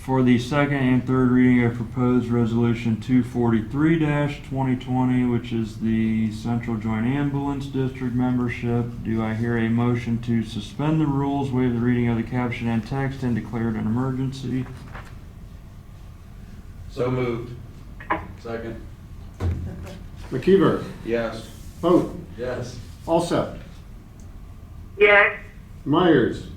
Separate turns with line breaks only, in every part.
for the second and third reading of proposed resolution two forty-three twenty twenty, which is the Central Joint Ambulance District membership. Do I hear a motion to suspend the rules, waive the reading of the caption and text, and declare it an emergency?
So moved. Second.
McKeever,
Yes.
Vote.
Yes.
Alsep,
yes,
Myers,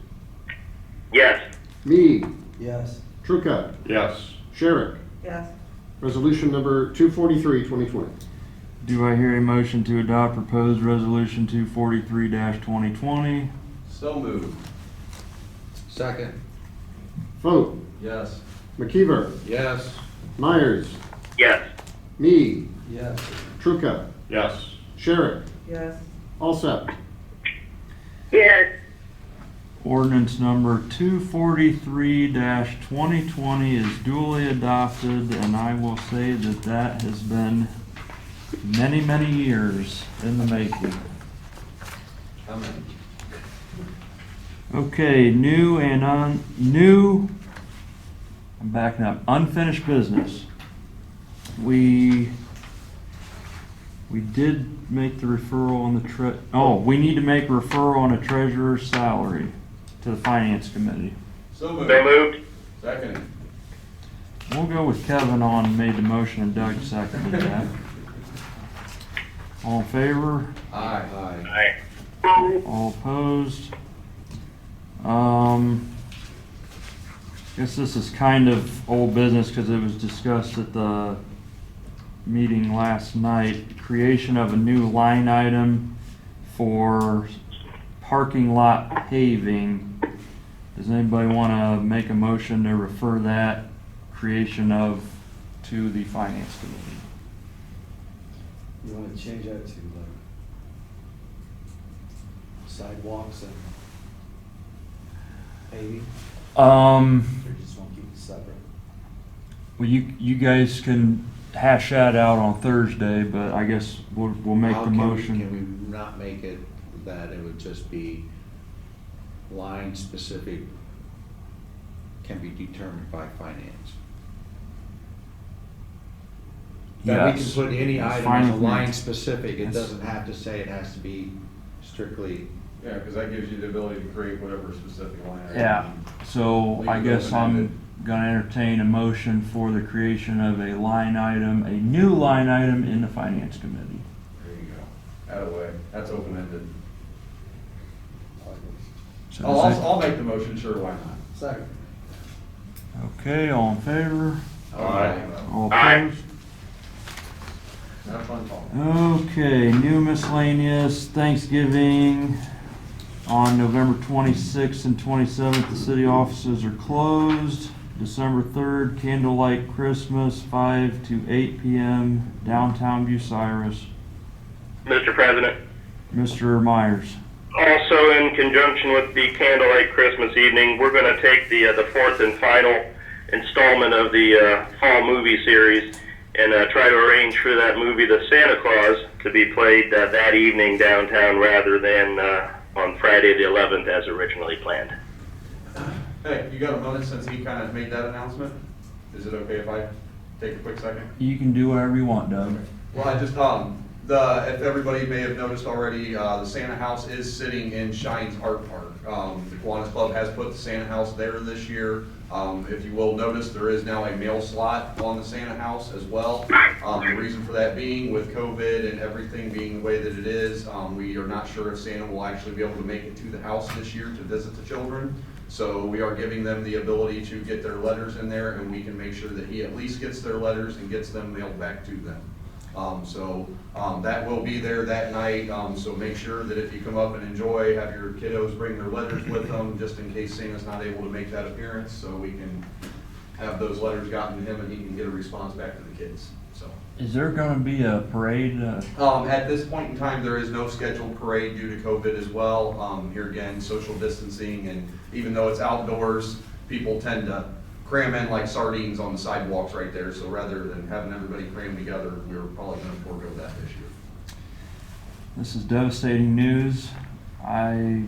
yes,
Mead,
Yes.
Trucca,
yes,
Sherrick.
yes,
Resolution number 243, 2020.
Do I hear a motion to adopt proposed resolution two forty-three twenty twenty?
So moved. Second.
Vote.
Yes.
McKeever,
Yes.
Myers,
yes,
Mead,
Yes.
Trucca,
yes,
Sherrick,
yes,
Alsep,
yes,
Ordinance number two forty-three twenty twenty is duly adopted, and I will say that that has been many, many years in the making.
Amen.
Okay, new and un, new, I'm backing up, unfinished business. We, we did make the referral on the tre, oh, we need to make referral on a treasurer's salary to the finance committee.
So
so
moved.
moved,
Second.
We'll go with Kevin on, made the motion, and Doug seconded that. All in favor?
Aye. Aye.
aye,
All opposed? Um, guess this is kind of old business because it was discussed at the meeting last night. Creation of a new line item for parking lot paving. Does anybody want to make a motion to refer that creation of to the finance committee?
You wanna change that to uh, like sidewalks and paving,
Um,
or you just wanna keep it separate?
Well, you, you guys can hash that out on Thursday, but I guess we'll, we'll make
How
the
can we-
motion.
Can we not make it that it would just be line specific can be determined by finance? That we can
Yes.
put any
That's
item
fine
as a
with me.
line specific, it
That's-
doesn't have to say it has to be strictly.
Yeah, because that gives you the ability to create whatever specific line. item.
Yeah, so
Leave
I
it
guess I'm gonna entertain a motion for the creation of a line item, a new line item in the finance committee.
There you go. Out of the way. That's open-ended.
So
I'll,
does
Oh, I'll,
it-
I'll make the motion, sure, why not?
Second.
Okay, all in favor?
Aye.
All
Aye.
opposed?
Have fun, Paul.
Okay, new miscellaneous Thanksgiving on November 26th and 27th, the city offices are closed. December 3rd, candlelight Christmas, 5 to 8 PM, downtown Bucyrus.
Mr. President.
Mr. Myers.
Also, in conjunction with the candlelight Christmas evening, we're going to take the uh, the fourth and final installment of the uh, fall movie series and uh, try to arrange for that movie, The Santa Claus, to be played uh, that evening downtown rather than uh, on Friday the 11th as originally planned.
Hey, you got a moment since he kind of made that announcement? Is it okay if I take a quick second?
You can do whatever you want, Doug.
Well, I just, um, the, if everybody may have noticed already, uh, the Santa House is sitting in Shine's Art Park. Um, the Kiwanis Club has put the Santa House there this year. Um, if you will notice, there is now a mail slot on the Santa House as well. Um, the reason for that being with COVID and everything being the way that it is, um, we are not sure if Santa will actually be able to make it to the house this year to visit the children. So we are giving them the ability to get their letters in there and we can make sure that he at least gets their letters and gets them mailed back to them. Um, so, um, that will be there that night, um, so make sure that if you come up and enjoy, have your kiddos bring their letters with them, just in case Santa's not able to make that appearance, so we can have those letters gotten to him and he can get a response back to the kids, so.
Is there gonna be a parade? uh,
Um, at this point in time, there is no scheduled parade due to COVID as well. Um, here again, social distancing, and even though it's outdoors, people tend to cram in like sardines on the sidewalks right there. So rather than having everybody cram together, we're probably gonna forego that this year.
This is devastating news. I